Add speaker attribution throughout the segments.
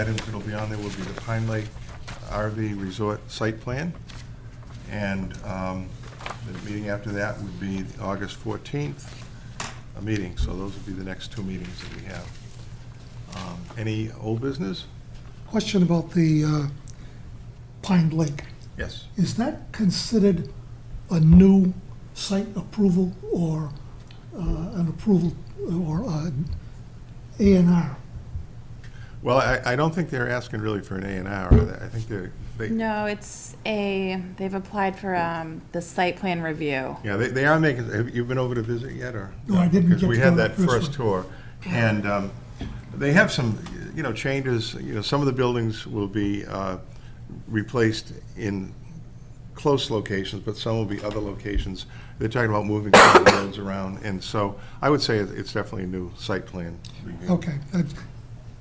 Speaker 1: Items that'll be on there will be the Pine Lake RV Resort Site Plan, and um, the meeting after that would be August 14th, a meeting, so those would be the next two meetings that we have. Um, Any old business?
Speaker 2: Question about the uh, Pine Lake.
Speaker 1: Yes.
Speaker 2: Is that considered a new site approval or uh, an approval or uh, A and R?
Speaker 1: Well, I, I don't think they're asking really for an A and R, I think they're, they,
Speaker 3: No, it's a, they've applied for um, the site plan review.
Speaker 1: Yeah, they, they are making, have you been over to visit yet, or?
Speaker 2: No, I didn't
Speaker 1: Because
Speaker 2: get
Speaker 1: we
Speaker 2: to
Speaker 1: had
Speaker 2: go
Speaker 1: that
Speaker 2: to the first
Speaker 1: first tour, and um, they have some, you know, changes, you know, some of the buildings will be uh, replaced in close locations, but some will be other locations. They're talking about moving some of the roads around, and so I would say it- it's definitely a new site plan. review.
Speaker 2: Okay. I-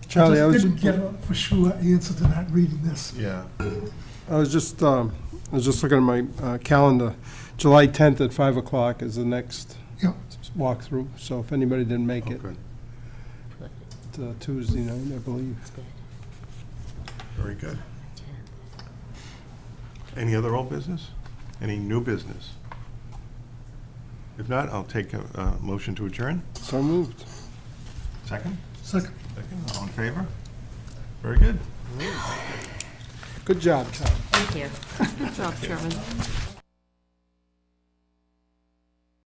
Speaker 4: Charlie, I
Speaker 2: I
Speaker 4: was,
Speaker 2: just didn't get a for sure answer to that reading this.
Speaker 1: Yeah,
Speaker 4: I was just, um, I was just looking at my uh, calendar. July 10th at 5 o'clock is the next
Speaker 2: Yeah.
Speaker 4: walkthrough, so if anybody didn't make it,
Speaker 1: okay,
Speaker 4: it's, uh, Tuesday night, I believe.
Speaker 1: very good. Any other old business? Any new business? If not, I'll take a, a motion to adjourn.
Speaker 4: So moved.
Speaker 1: Second?
Speaker 2: Second.
Speaker 1: Second, all in favor? Very good.
Speaker 4: Good job, Charlie.
Speaker 5: Thank you. Good job, Chairman.